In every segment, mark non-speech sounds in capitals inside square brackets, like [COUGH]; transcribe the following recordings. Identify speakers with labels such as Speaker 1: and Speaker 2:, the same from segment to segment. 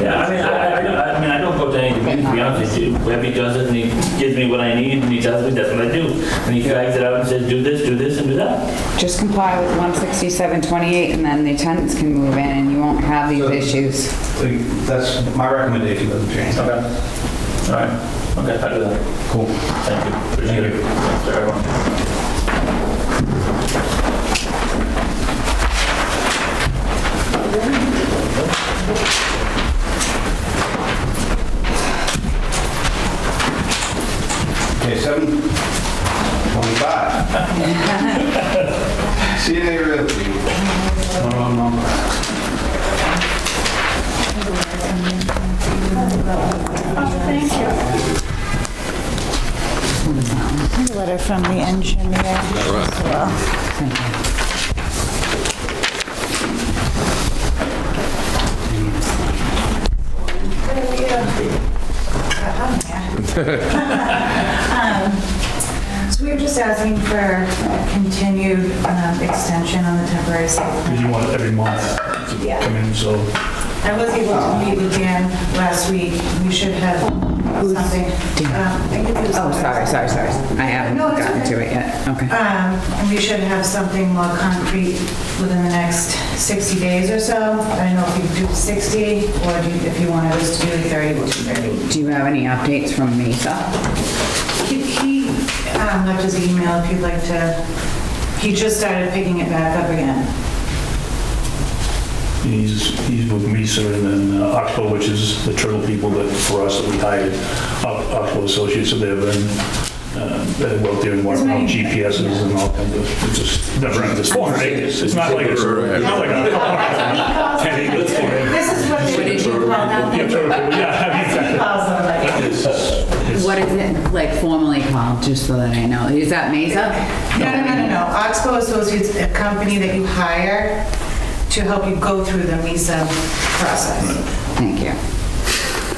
Speaker 1: Yeah, I mean, I, I- I, I mean, I don't go to any meetings, to be honest with you. Webby does it, and he gives me what I need, and he tells me that's what I do. And he drags it out and says, do this, do this, and do that.
Speaker 2: Just comply with 16728 and then the tenants can move in and you won't have these
Speaker 3: So-
Speaker 2: issues.
Speaker 3: Like, That's, my recommendation doesn't change.
Speaker 1: Okay. All right. Okay, I'll do that.
Speaker 3: Cool.
Speaker 1: Thank you. Appreciate it. Thanks, everyone.
Speaker 3: Okay, seven
Speaker 1: [LAUGHS]
Speaker 3: twenty-five. CNA Realty. Um,
Speaker 4: Letter from the engineer as well.
Speaker 5: Um, So we were just asking for a continued um, extension on the temporary site plan.
Speaker 6: Because you want it every month to come in, so
Speaker 5: I was able to meet with Dan last week. We should have something. um, I think it was-
Speaker 2: Oh, sorry, sorry, sorry. I haven't
Speaker 5: No, it's
Speaker 2: gotten
Speaker 5: okay.
Speaker 2: to it yet. Okay.
Speaker 5: Um, And we should have something more concrete within the next 60 days or so. I don't know if you can do 60 or do you- if you wanted us to do 30, we'll do 30.
Speaker 2: Do you have any updates from Mesa?
Speaker 5: He- He um, left his email if you'd like to, he just started picking it back up again.
Speaker 6: [LAUGHS] he's, he's with Mesa and then uh, Oxbow, which is the turtle people that, for us, that we hired, Ox- Oxbow Associates, so they've been, uh, they work there and work on GPSs and all kinds of, it's just never ending. It's four acres, it's not like it's, it's not like a ten acres, four acres.
Speaker 5: This is what they do call
Speaker 6: Yeah,
Speaker 5: them.
Speaker 6: turtle people, yeah, I
Speaker 5: [LAUGHS]
Speaker 6: mean,
Speaker 5: He calls them like.
Speaker 6: it's- it's-
Speaker 2: What is it like formally called, just so that I know? Is that Mesa?
Speaker 5: No, no, no, no, no. Oxbow Associates, is a company that you hire to help you go through the MISA process.
Speaker 2: Thank you.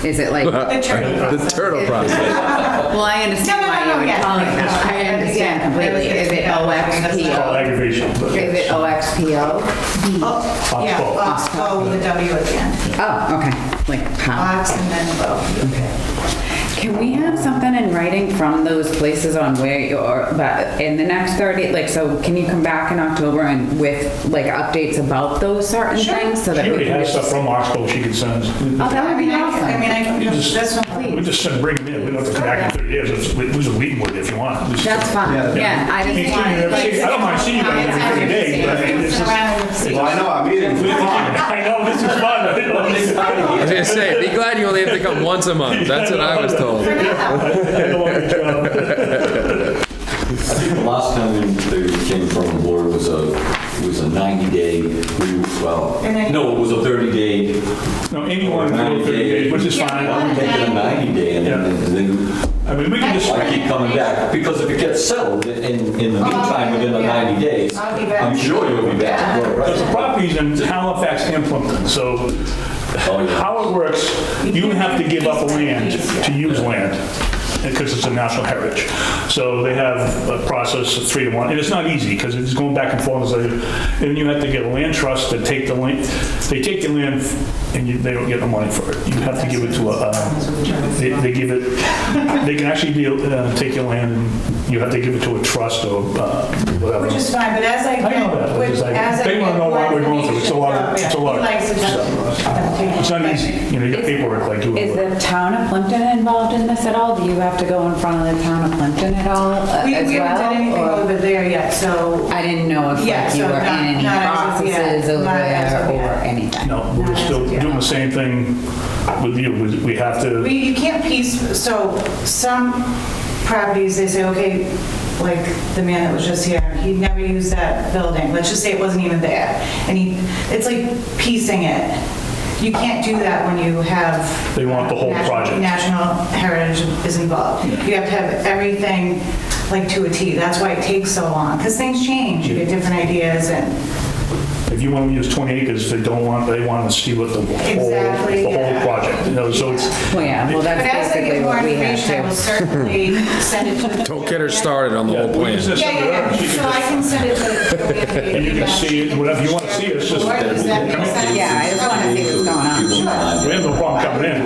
Speaker 2: Is it like,
Speaker 5: The turtle
Speaker 7: Uh, The
Speaker 5: process.
Speaker 7: turtle process.
Speaker 2: well, I
Speaker 5: No,
Speaker 2: understand
Speaker 5: no,
Speaker 2: why
Speaker 5: no, no,
Speaker 2: you would
Speaker 5: yes.
Speaker 2: call it that. I
Speaker 5: Yeah,
Speaker 2: understand
Speaker 5: yeah,
Speaker 2: completely.
Speaker 5: it's-
Speaker 2: Is it
Speaker 5: yeah.
Speaker 6: All
Speaker 2: OXPO?
Speaker 6: aggravation, but
Speaker 2: Is it
Speaker 6: it's-
Speaker 2: OXPO?
Speaker 5: Oh, Yeah,
Speaker 6: Oxbow.
Speaker 5: Oxbow with a W at the end.
Speaker 2: Oh, okay, like pow.
Speaker 5: Ox and then bow.
Speaker 2: Can we have something in writing from those places on where you're, but in the next 30, like, so can you come back in October and with, like, updates about those certain things? so that
Speaker 6: She
Speaker 2: we
Speaker 6: already
Speaker 2: can
Speaker 6: has
Speaker 2: just-
Speaker 6: stuff from Oxbow she can send.
Speaker 2: Oh, that would be
Speaker 5: I
Speaker 2: awesome.
Speaker 5: mean, I can,
Speaker 6: You just-
Speaker 5: that's not,
Speaker 6: We
Speaker 5: please.
Speaker 6: just said bring them in, we don't have to come back in 30 years, It's- we lose a meeting with it if you want. Just-
Speaker 2: That's
Speaker 3: Yeah.
Speaker 2: fine, yeah, I
Speaker 6: Me
Speaker 2: just
Speaker 6: too,
Speaker 2: want.
Speaker 6: you know, see, I don't mind seeing you guys every day, but I mean, this is.
Speaker 3: Well, I know, I mean, it's fine.
Speaker 6: I know, this is fun. I know, this is-
Speaker 7: I was gonna say, be glad you only have to come once a month. That's what I was told.
Speaker 6: I know what you're trying to-
Speaker 8: I think the last time we- they came from the board was a, was a 90-day, well,
Speaker 5: And then-
Speaker 8: no, it was a 30-day,
Speaker 6: No, anyone can go 30 days, which is
Speaker 8: I'm
Speaker 6: fine.
Speaker 8: taking a 90-day, and then- and then,
Speaker 6: I mean, we can just,
Speaker 8: I keep coming back, because if it gets settled in, in the
Speaker 2: Oh,
Speaker 8: meantime, within the 90 days,
Speaker 5: I'll be back.
Speaker 8: I'm sure you'll be back.
Speaker 6: there's properties in Halifax and Plimpton, so
Speaker 8: Oh, yeah.
Speaker 6: how it works, you have to give up land to use land, because it's a national heritage. So they have a process of three to one, and it's not easy, because it's going back and forth, and so- and you have to get a land trust to take the land, they take the land, and you- they don't get no money for it. You have to give it to a, uh, they they give it, they can actually be, uh, take your land, and you have to give it to a trust or uh, whatever.
Speaker 5: Which is fine, but as I
Speaker 6: I know that,
Speaker 5: get,
Speaker 6: but
Speaker 5: which-
Speaker 6: it's like-
Speaker 5: as I
Speaker 6: they
Speaker 5: get
Speaker 6: wanna know
Speaker 5: more
Speaker 6: what we're going through. It's a lot of- it's a lot of-
Speaker 5: information, yeah, he likes to-
Speaker 6: It's not easy, you know, you got paperwork like you
Speaker 2: Is
Speaker 6: were.
Speaker 2: the town of Plimpton involved in this at all? Do you have to go in front of the town of Plimpton at all uh,
Speaker 5: We,
Speaker 2: as
Speaker 5: we haven't
Speaker 2: well?
Speaker 5: done anything
Speaker 2: or-
Speaker 5: over there yet, so
Speaker 2: I didn't know if
Speaker 5: Yeah,
Speaker 2: like you
Speaker 5: so
Speaker 2: were in
Speaker 5: not-
Speaker 2: any
Speaker 5: not as of yet.
Speaker 2: processes over
Speaker 5: Not as
Speaker 2: there
Speaker 5: of
Speaker 2: or
Speaker 5: yet.
Speaker 2: anything.
Speaker 6: No, we're still doing the same thing with you, We- we have to,
Speaker 5: We, you can't piece, so some properties, they say, okay, like the man that was just here, he never used that building, let's just say it wasn't even there. And he, it's like piecing it. You can't do that when you have.
Speaker 6: They want the whole
Speaker 5: national-
Speaker 6: project.
Speaker 5: National heritage is involved. You have to have everything like to a T, that's why it takes so long, because things change, you get different ideas and,
Speaker 6: if you want to use 20 acres, they don't want, they want to see what the whole,
Speaker 5: Exactly,
Speaker 6: the whole
Speaker 5: yeah.
Speaker 6: project, you know, other, so it's,
Speaker 2: Well, yeah, well,
Speaker 5: But
Speaker 2: that's
Speaker 5: as I
Speaker 2: basically
Speaker 5: get more
Speaker 2: what we had
Speaker 5: information, I will
Speaker 2: too.
Speaker 5: certainly
Speaker 2: [LAUGHS]
Speaker 5: send it to. [LAUGHS]
Speaker 7: Don't get her started on the whole
Speaker 6: we
Speaker 7: plan.
Speaker 6: just-
Speaker 5: Yeah, yeah, yeah, so I can send it to.
Speaker 6: And [LAUGHS] you can see it, whatever you wanna see, it's just-
Speaker 5: Or does that make sense?
Speaker 2: Yeah, I just wanna see what's going on.
Speaker 8: People in mind.
Speaker 6: we have no problem coming in.